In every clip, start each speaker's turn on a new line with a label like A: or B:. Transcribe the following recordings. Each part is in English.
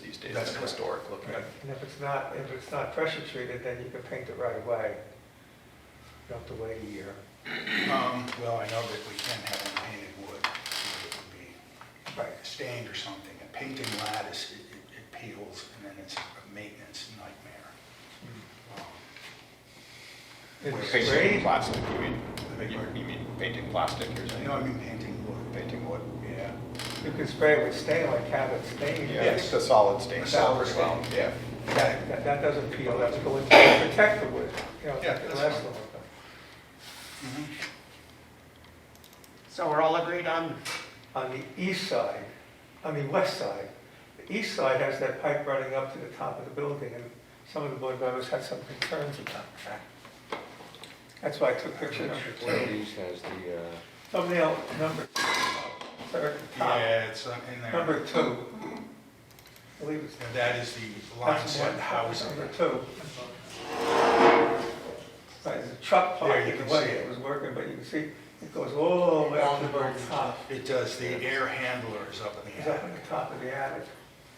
A: days,
B: That's
A: it's
B: correct.
A: historic looking.
B: Right.
C: And if it's not, if it's not pressure treated, then you can paint it right away. You don't have to wait a year.
B: Um, Well, I know that we can have it painted wood, it would be
C: Right.
B: stained or something. A painting lattice, it- it it peels, and then it's a maintenance nightmare. Um,
C: It's
A: Painting
C: sprayed,
A: plastic, you mean, You- you mean painting plastic, you're saying?
B: No, I mean painting wood.
A: Painting wood.
B: Yeah.
C: you can spray it with stain like Cabot stain.
A: Yeah, I think the solid stain.
B: The solid
A: works well,
B: stain.
A: Yeah.
B: Yeah,
C: That, that doesn't peel, that's going to protect the wood, you know,
B: Yeah, that's
C: the rest
B: fine.
C: of it.
B: mhm.
D: So we're all agreed on,
C: On the east side, on the west side, the east side has that pipe running up to the top of the building, and some of the board members had some concerns about that. That's why I took picture
E: One
C: number
E: of
C: two.
E: these has the, uh,
C: Thumbnail number, third, top,
B: Yeah, it's uh, in there.
C: number two. I believe it's.
B: And That is the line
C: That's
B: set
C: one,
B: house.
C: house number two. Right, the truck
B: There,
C: parked
B: you
C: in
B: can
C: the way,
B: see it.
C: it was working, but you can see, it goes all the way up to the very top.
B: It does, the air handler is up in
C: It's
B: the
C: up
B: attic,
C: at the top of the attic.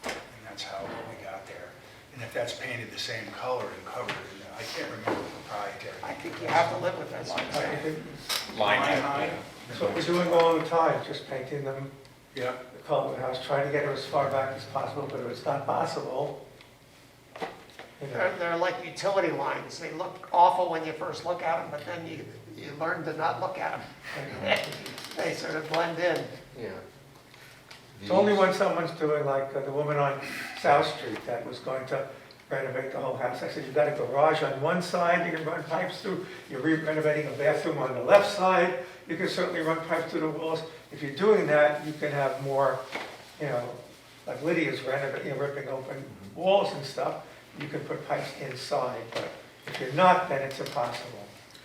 B: and that's how we got there. And if that's painted the same color and covered, in- I can't remember the proprietary.
D: I think you have to live with us.
A: Line
C: I
A: height.
C: think
A: Line height,
B: height.
A: yeah.
C: That's what we're doing all the time, just painting them,
B: Yeah,
C: the color of the house, trying to get it as far back as possible, but if it's not possible, you know,
D: They're, they're like utility lines, they look awful when you first look at them, but then you, you learn to not look at them. They sort of blend in.
E: yeah.
C: It's only
E: These-
C: when someone's doing like uh, the woman on South Street that was going to renovate the whole house. I said, you've got a garage on one side, you can run pipes through, you're renovating a bathroom on the left side, you can certainly run pipes through the walls. If you're doing that, you can have more, you know, like Lydia's renovating, you know, ripping open walls and stuff, you can put pipes inside, but if you're not, then it's impossible.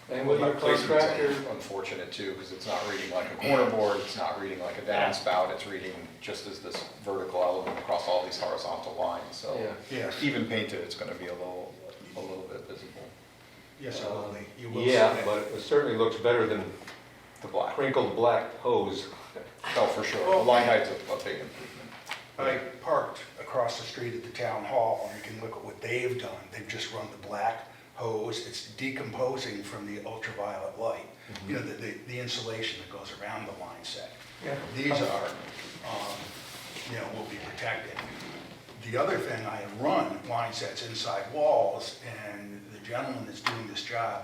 E: And with your
A: Placement's
E: contractor,
A: Unfortunate too, because it's not reading like a corner board, it's not reading like a downspout, it's reading just as this vertical element across all these horizontal lines, so.
E: Yeah.
B: yes,
A: Even painted, it's gonna be a little, a little bit visible,
B: yes, I will, you will. see
E: yeah,
B: that.
E: but it certainly looks better than
A: the black.
E: crinkled black hose.
A: Oh, for sure, the line height's a a big improvement.
B: I parked across the street at the town hall, and you can look at what they've done. They've just run the black hose, it's decomposing from the ultraviolet light, you know, the, the- the insulation that goes around the line set.
C: Yeah.
B: These are, um, you know, will be protected. The other thing, I have run line sets inside walls, and the gentleman that's doing this job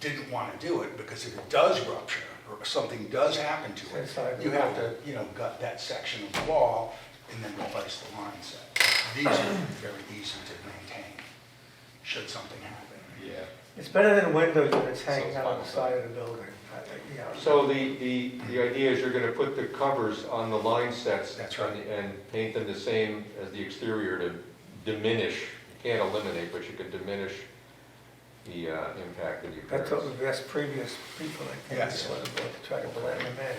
B: didn't want to do it, because if it does rupture, or something does happen to it,
C: Inside the
B: you have
C: wall.
B: to you know, gut that section of the wall and then replace the line set. These are very easy to maintain, should something happen.
A: Yeah.
C: It's better than windows when it's
A: So
C: hanging
A: it's
C: out on the
A: fine.
C: side of the building, I think, you know.
E: So the, the, the idea is you're gonna put the covers on the line sets.
B: That's right.
E: and- And paint them the same as the exterior to diminish, you can't eliminate, but you can diminish the uh, impact of the appearance.
C: That's what we've asked previous people, I think,
B: Yes.
C: before the board to try to blend them in.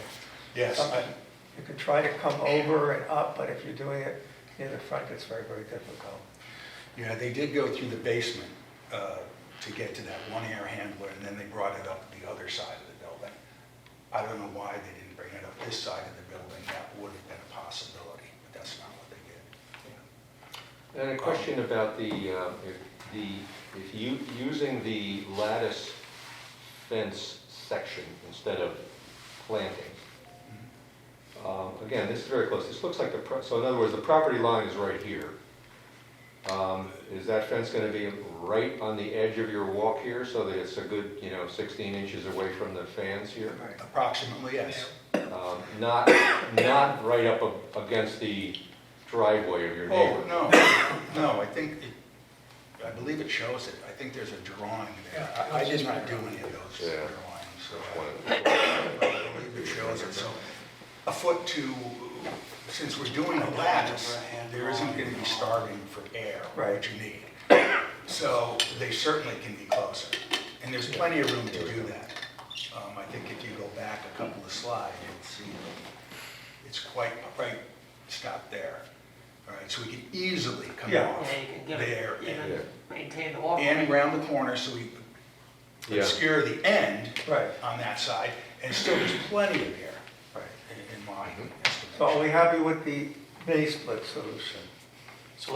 B: Yes, I-
C: Something- You could try to come over and up, but if you're doing it near the front, it's very, very difficult.
B: yeah, they did go through the basement uh, to get to that one air handler, and then they brought it up the other side of the building. I don't know why they didn't bring it up this side of the building, that would have been a possibility, but that's not what they did.
E: And a question about the, um, if the, if you, using the lattice fence section instead of planting. Um, Again, this is very close, this looks like the, pro- so in other words, the property line is right here. Um, Is that fence gonna be right on the edge of your walk here, so that it's a good, you know, sixteen inches away from the fans here?
B: Approximately, yes.
E: Um, Not, not right up a- against the driveway of your
B: Oh,
E: neighbor?
B: no, no, I think, it- I believe it shows it, I think there's a drawing there. I- I did not do any of those
E: Yeah.
B: drawings, so I
E: One-
B: I believe it shows it, so a foot to, since we're doing a lattice, there isn't going to be starving for air,
C: Right.
B: what you need. So they certainly can be closer, and there's plenty of room to do that. Um, I think if you go back a couple of slides, you'll see it's quite, right, stop there. All right, so we can easily come
C: Yeah.
B: off
D: Yeah, you can give
B: there and-
D: it,
E: yeah.
D: even maintain the
B: and
D: walkway.
B: round the corner, so we
E: Yeah.
B: obscure the end
C: Right.
B: on that side, and still there's plenty of air
C: Right.
B: in in my
C: So are
B: estimation.
C: we happy with the May split solution?